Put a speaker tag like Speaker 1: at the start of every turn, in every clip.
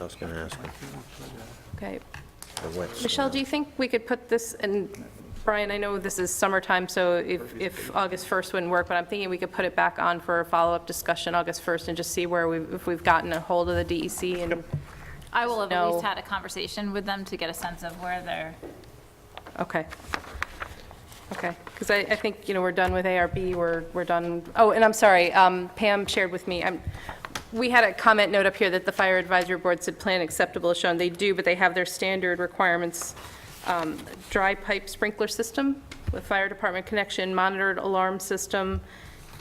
Speaker 1: was going to ask him.
Speaker 2: Okay.
Speaker 1: The wet
Speaker 2: Michelle,
Speaker 1: soil.
Speaker 2: do you think we could put this, and Brian, I know this is summertime, so if, if August 1st wouldn't work, but I'm thinking we could put it back on for a follow-up discussion August 1st and just see where we, if we've gotten a hold of the DEC and,
Speaker 3: I will have at
Speaker 2: No.
Speaker 3: least had a conversation with them to get a sense of where they're,
Speaker 2: okay. Okay, because I, I think, you know, we're done with ARB, we're, we're done, oh, and I'm sorry, um, Pam shared with me, I'm, we had a comment note up here that the fire advisory board said plan acceptable is shown, they do, but they have their standard requirements, um, dry pipe sprinkler system with fire department connection, monitored alarm system,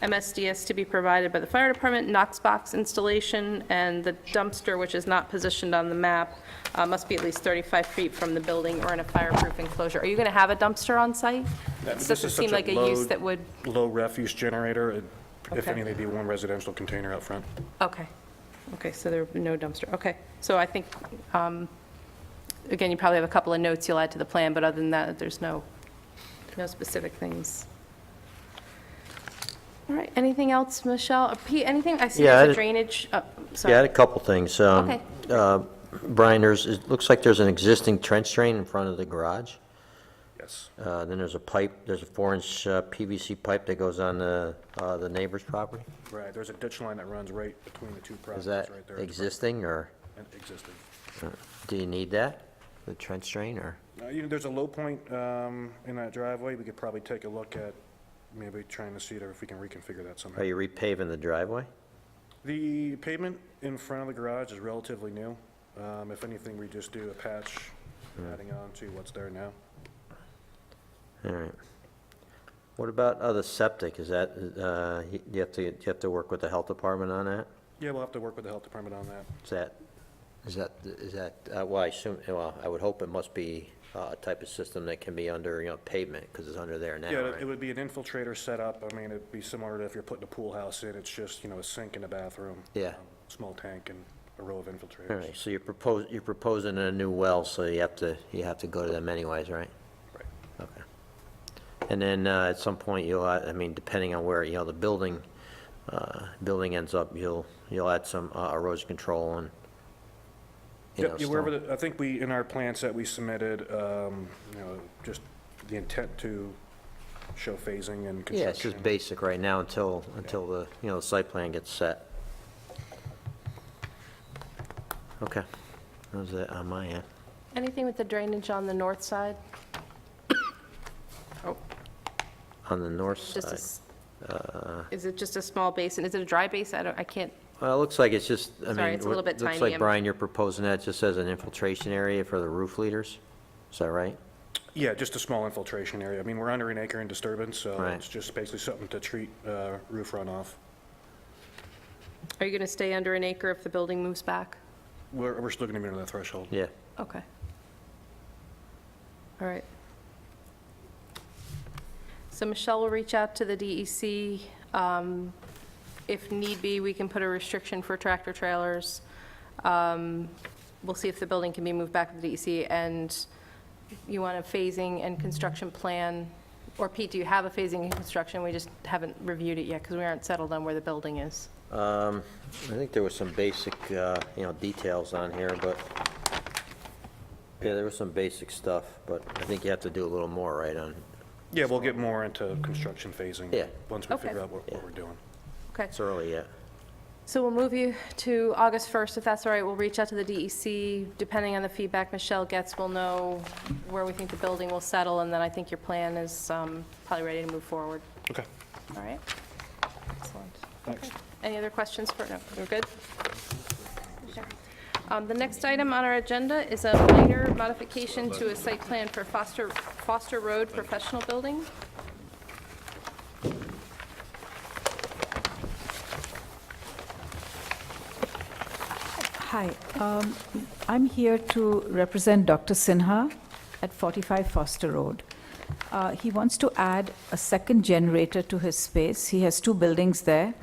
Speaker 2: MSDS to be provided by the fire department, Knox box installation, and the dumpster, which is not positioned on the map, uh, must be at least 35 feet from the building or in a fireproof enclosure. Are you going to have a dumpster on site?
Speaker 4: Yeah,
Speaker 2: This
Speaker 4: this
Speaker 2: doesn't
Speaker 4: is such
Speaker 2: seem like a
Speaker 4: low-
Speaker 2: use that would,
Speaker 4: Low refuse generator, it- if
Speaker 2: Okay.
Speaker 4: anything, it'd be one residential container out front.
Speaker 2: okay, okay, so there would be no dumpster, okay. So I think, um, again, you probably have a couple of notes you'll add to the plan, but other than that, there's no, no specific things. All right, anything else, Michelle? Uh, Pete, anything, I see
Speaker 1: Yeah, I
Speaker 2: there's a
Speaker 1: did-
Speaker 2: drainage, oh, sorry.
Speaker 1: Yeah, I had a couple things. Um,
Speaker 2: Okay.
Speaker 1: uh, Brian, there's, it looks like there's an existing trench drain in front of the garage.
Speaker 4: Yes.
Speaker 1: Uh, Then there's a pipe, there's a four-inch uh, PVC pipe that goes on the uh, the neighbor's property.
Speaker 4: Right, there's a ditch line that runs right between the two
Speaker 1: Is
Speaker 4: properties
Speaker 1: that
Speaker 4: right there.
Speaker 1: existing, or uh,
Speaker 4: And Existing.
Speaker 1: do you need that, the trench drain, or?
Speaker 4: Uh, You know, there's a low point um, in that driveway, we could probably take a look at, maybe trying to see there if we can reconfigure that
Speaker 1: Are
Speaker 4: somehow.
Speaker 1: you repaving the driveway?
Speaker 4: The pavement in front of the garage is relatively new. Um, If anything, we just do a patch, adding on to what's there now.
Speaker 1: All right. What about other septic? Is that, uh, you you have to, you have to work with the health department on that?
Speaker 4: Yeah, we'll have to work with the health department on that.
Speaker 1: Is that, is that, is that, uh, well, I assume, well, I would hope it must be uh, a type of system that can be under, you know, pavement, because it's under there now,
Speaker 4: Yeah,
Speaker 1: right?
Speaker 4: it would be an infiltrator setup. I mean, it'd be similar to if you're putting a pool house in, it's just, you know, a sink and a bathroom.
Speaker 1: Yeah.
Speaker 4: um, Small tank and a row of infiltrators.
Speaker 1: All right, so you're propos you're proposing a new well, so you have to, you have to go to them anyways, right?
Speaker 4: Right.
Speaker 1: Okay. And then uh, at some point, you'll, add- I mean, depending on where, you know, the building, uh, building ends up, you'll, you'll add some uh, erosion control and, you know,
Speaker 4: Yep, yeah, wherever,
Speaker 1: stone.
Speaker 4: the- I think we, in our plans that we submitted, um, you know, just the intent to show phasing and construction.
Speaker 1: Yeah, it's just basic right now until, until the, you know, the site plan gets set. Okay, that was it on my end.
Speaker 2: Anything with the drainage on the north side? Oh,
Speaker 1: On the north
Speaker 2: just a
Speaker 1: side,
Speaker 2: s-
Speaker 1: Uh.
Speaker 2: Is it just a small basin? Is it a dry basin? I don't, I can't,
Speaker 1: well, it looks like it's just, I mean.
Speaker 2: Sorry, it's a
Speaker 1: what-
Speaker 2: little bit
Speaker 1: Looks
Speaker 2: tiny,
Speaker 1: like,
Speaker 2: I'm-
Speaker 1: Brian, you're proposing that just as an infiltration area for the roof leaders, is that right?
Speaker 4: Yeah, just a small infiltration area. I mean, we're under an acre in disturbance, so
Speaker 1: Right.
Speaker 4: it's just basically something to treat uh, roof runoff.
Speaker 2: are you going to stay under an acre if the building moves back?
Speaker 4: We're, we're still gonna be under that threshold.
Speaker 1: Yeah,
Speaker 2: Okay. All right. So Michelle will reach out to the DEC. Um, If need be, we can put a restriction for tractor trailers. Um, We'll see if the building can be moved back to the DEC, and you want a phasing and construction plan, or Pete, do you have a phasing and construction? We just haven't reviewed it yet, because we aren't settled on where the building is.
Speaker 1: um, I think there was some basic, uh, you know, details on here, but, yeah, there was some basic stuff, but I think you have to do a little more, right, on,
Speaker 4: Yeah, we'll get more into construction phasing.
Speaker 1: Yeah.
Speaker 4: Once we
Speaker 2: Okay.
Speaker 4: figure out what,
Speaker 1: Yeah.
Speaker 4: what we're doing.
Speaker 2: Okay.
Speaker 1: it's early yet.
Speaker 2: So we'll move you to August 1st, if that's all right. We'll reach out to the DEC. Depending on the feedback Michelle gets, we'll know where we think the building will settle, and then I think your plan is um, probably ready to move forward.
Speaker 4: Okay,
Speaker 2: All right? Excellent.
Speaker 4: thanks.
Speaker 2: Any other questions for, no, we're good? Um, The next item on our agenda is a minor modification to a site plan for Foster, Foster Road Professional Building.
Speaker 5: Hi, um, I'm here to represent Dr. Sinha at 45 Foster Road. Uh, He wants to add a second generator to his space. He has two buildings there.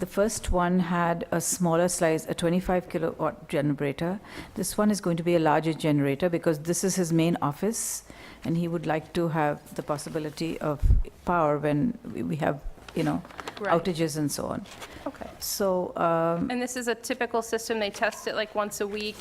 Speaker 5: The first one had a smaller size, a 25 kilowatt generator. This one is going to be a larger generator because this is his main office, and he would like to have the possibility of power when we- we have, you know,
Speaker 2: Right.
Speaker 5: outages and so on.
Speaker 2: Okay.
Speaker 5: So um,
Speaker 2: And this is a typical system. They test it like once a week,